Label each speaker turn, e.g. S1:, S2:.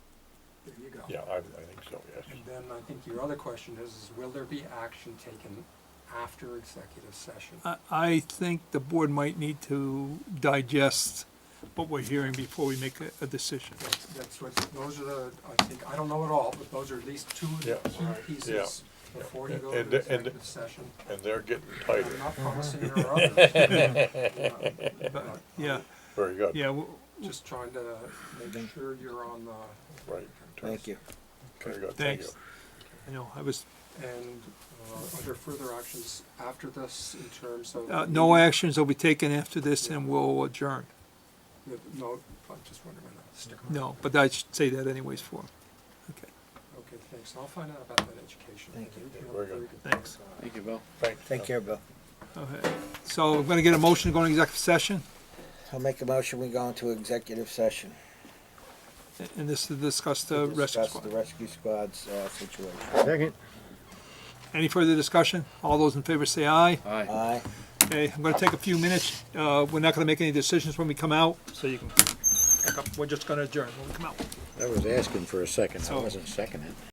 S1: There you go.
S2: Yeah, I, I think so, yes.
S1: And then I think your other question is, is will there be action taken after executive session?
S3: I, I think the board might need to digest what we're hearing before we make a, a decision.
S1: That's, that's what, those are the, I think, I don't know it all, but those are at least two of the
S2: Yeah.
S1: key pieces
S2: Yeah.
S1: before you go
S2: And-
S1: to
S2: and-
S1: executive session.
S2: And they're getting
S1: I'm
S2: tighter.
S1: not promising there are others. you know,
S3: But,
S1: but
S3: yeah,
S2: Very good.
S3: yeah, w-
S1: Just trying to make sure you're on the,
S2: Right.
S4: Thank you.
S2: Very good, thank you.
S3: thanks. I know, I was,
S1: and uh, are there further actions after this in terms of?
S3: uh, no actions will be taken after this and we'll adjourn.
S1: No, I'm just wondering, when that stick around.
S3: No, but I should say that anyways for him. Okay,
S1: Okay, thanks. I'll find out about that education.
S4: Thank you.
S1: have a
S2: Very good.
S3: thanks.
S1: Uh,
S5: Thank you, Bill.
S2: Thanks.
S4: Take care, Bill.
S3: Okay, so we're gonna get a motion to go into executive session,
S4: I'll make a motion, we go into executive session.
S3: and this is to discuss
S4: to
S3: the rescue
S4: discuss The
S3: squad.
S4: rescue squad's, uh, situation.
S3: Any further discussion? All those in favor say aye.
S5: Aye.
S4: Aye.
S3: Okay, I'm gonna take a few minutes, uh, we're not gonna make any decisions when we come out, so you can, pick up. we're just gonna adjourn when we come out.
S5: I was asking for a second. I
S3: So-
S5: wasn't seconding.